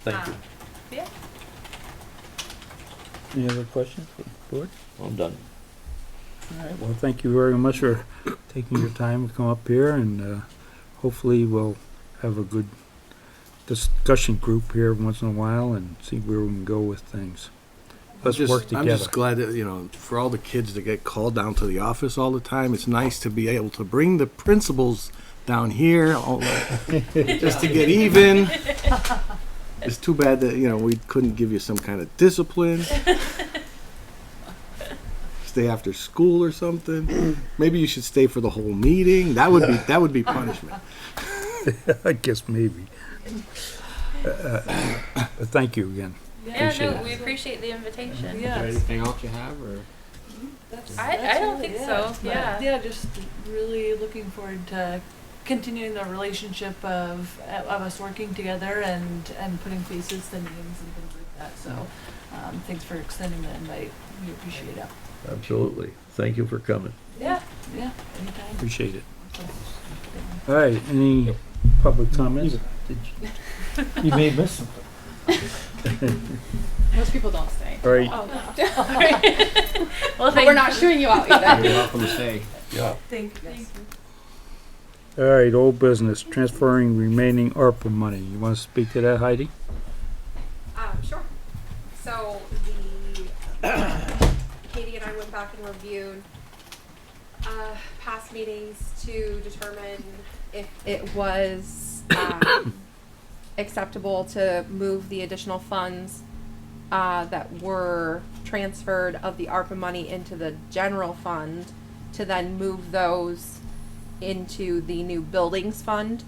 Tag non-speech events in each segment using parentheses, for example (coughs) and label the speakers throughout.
Speaker 1: Thank you.
Speaker 2: Um, Yeah,
Speaker 3: Any other questions for the board?
Speaker 1: I'm done.
Speaker 3: All right, well, thank you very much for taking your time to come up here and uh, hopefully we'll have a good discussion group here once in a while and see where we can go with things. Let's
Speaker 4: just-
Speaker 3: work
Speaker 4: I'm
Speaker 3: together.
Speaker 4: just glad that, you know, for all the kids that get called down to the office all the time, it's nice to be able to bring the principals down here all, just to get even. It's too bad that, you know, we couldn't give you some kind of discipline. Stay after school or something. Maybe you should stay for the whole meeting. That would be that would be punishment.
Speaker 3: I guess maybe. Uh, uh, but Thank you again.
Speaker 2: yeah,
Speaker 3: Appreciate
Speaker 2: no,
Speaker 3: it.
Speaker 2: we appreciate the invitation.
Speaker 5: Yeah. Yes.
Speaker 6: anything else you have, or?
Speaker 5: That's-
Speaker 2: I-
Speaker 5: that's
Speaker 2: I don't
Speaker 5: really
Speaker 2: think
Speaker 5: it.
Speaker 2: so,
Speaker 5: But,
Speaker 2: yeah.
Speaker 5: Yeah, just really looking forward to continuing the relationship of, of us working together and, and putting faces to names and things like that, so, um, thanks for extending the invite, we appreciate it.
Speaker 1: Absolutely. Thank you for coming.
Speaker 5: Yeah, yeah, anytime.
Speaker 3: Appreciate it.
Speaker 5: So,
Speaker 3: All right, any public comments? You may miss something.
Speaker 7: Most people don't stay.
Speaker 3: All right,
Speaker 7: Oh, no. (laughs)
Speaker 2: Well,
Speaker 7: But
Speaker 2: thank
Speaker 7: we're not shooting you out either.
Speaker 6: You're welcome to stay.
Speaker 1: Yeah.
Speaker 5: Thank you.
Speaker 3: all right, old business, transferring remaining ARPA money. You want to speak to that, Heidi?
Speaker 8: Um, sure. So the (coughs) Katie and I went back and reviewed uh, past meetings to determine if it was (coughs) um, acceptable to move the additional funds uh, that were transferred of the ARPA money into the general fund to then move those into the new buildings fund.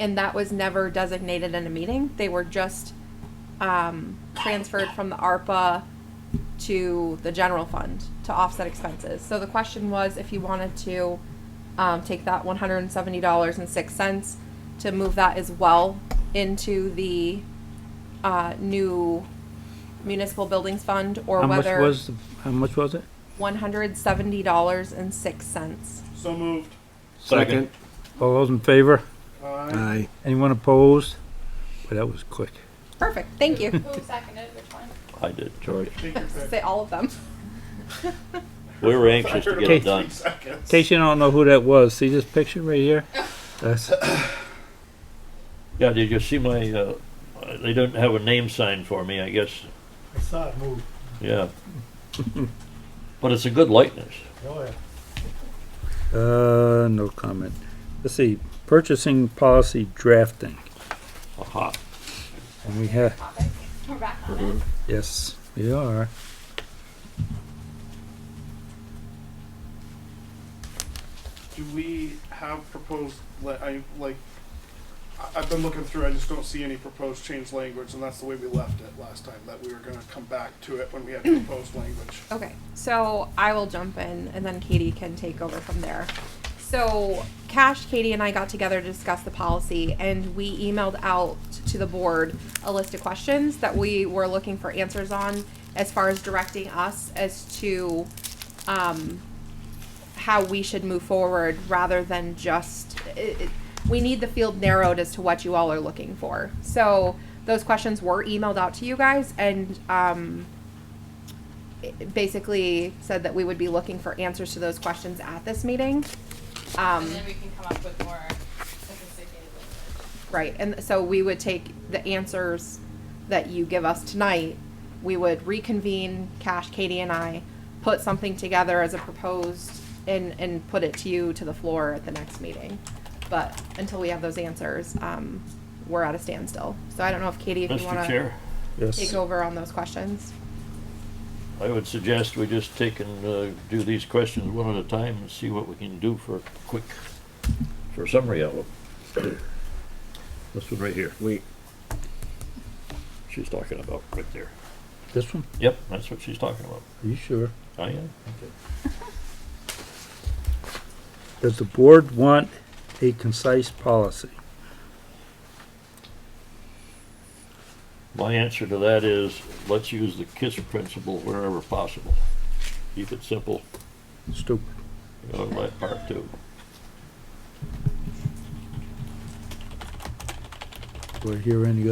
Speaker 8: And that was never designated in a meeting. They were just um, transferred from the ARPA to the general fund to offset expenses. So the question was if you wanted to um, take that one hundred and seventy dollars and six cents to move that as well into the uh, new municipal buildings fund, or
Speaker 3: How much
Speaker 8: whether
Speaker 3: was, the- how much was it?
Speaker 8: one hundred seventy dollars and six cents.
Speaker 9: So moved.
Speaker 1: Second.
Speaker 3: All those in favor?
Speaker 4: Aye.
Speaker 3: Anyone opposed? Well, that was quick.
Speaker 8: Perfect. Thank you.
Speaker 7: Who seconded which one?
Speaker 1: I did, George.
Speaker 9: Take your pick.
Speaker 8: Say all of them.
Speaker 1: We were anxious to get
Speaker 3: Okay.
Speaker 1: it done.
Speaker 3: In case you don't know who that was, see this picture right
Speaker 8: (laughs)
Speaker 3: here? That's, uh,
Speaker 1: Yeah, did you see my, uh, they didn't have a name sign for me, I guess.
Speaker 9: I saw it move.
Speaker 1: Yeah. (laughs) But it's a good likeness.
Speaker 9: Oh, yeah.
Speaker 3: uh, no comment. Let's see, purchasing policy drafting.
Speaker 1: Aha.
Speaker 3: And we have,
Speaker 7: Topic. We're back on it.
Speaker 3: yes, we are.
Speaker 9: Do we have proposed, like, I, like, I- I've been looking through, I just don't see any proposed change language, and that's the way we left it last time, that we were gonna come back to it when we had proposed language.
Speaker 8: Okay, so I will jump in and then Katie can take over from there. So, Cash, Katie, and I got together to discuss the policy, and we emailed out to the board a list of questions that we were looking for answers on as far as directing us as to um, how we should move forward rather than just it, it, we need the field narrowed as to what you all are looking for. So, those questions were emailed out to you guys, and um, it basically said that we would be looking for answers to those questions at this meeting.
Speaker 7: And
Speaker 8: Um,
Speaker 7: then we can come up with more sophisticated language.
Speaker 8: right, and so we would take the answers that you give us tonight, we would reconvene, Cash, Katie and I, put something together as a proposed and, and put it to you to the floor at the next meeting. But until we have those answers, um, we're at a standstill. So I don't know if Katie, if you
Speaker 1: Mr.
Speaker 8: wanna
Speaker 1: Chair,
Speaker 8: take
Speaker 3: Yes.
Speaker 8: over on those questions.
Speaker 1: I would suggest we just take and, uh, do these questions one at a time and see what we can do for a quick, for a summary of them. This one right here,
Speaker 6: Wait,
Speaker 1: she's talking about, right there.
Speaker 3: This one?
Speaker 1: Yep, that's what she's talking about.
Speaker 3: Are you sure?
Speaker 1: I am.
Speaker 3: Does the board want a concise policy?
Speaker 1: My answer to that is, let's use the KISS principle wherever possible. Keep it simple,
Speaker 3: Stupid.
Speaker 1: you know, my part too.
Speaker 3: Do I hear any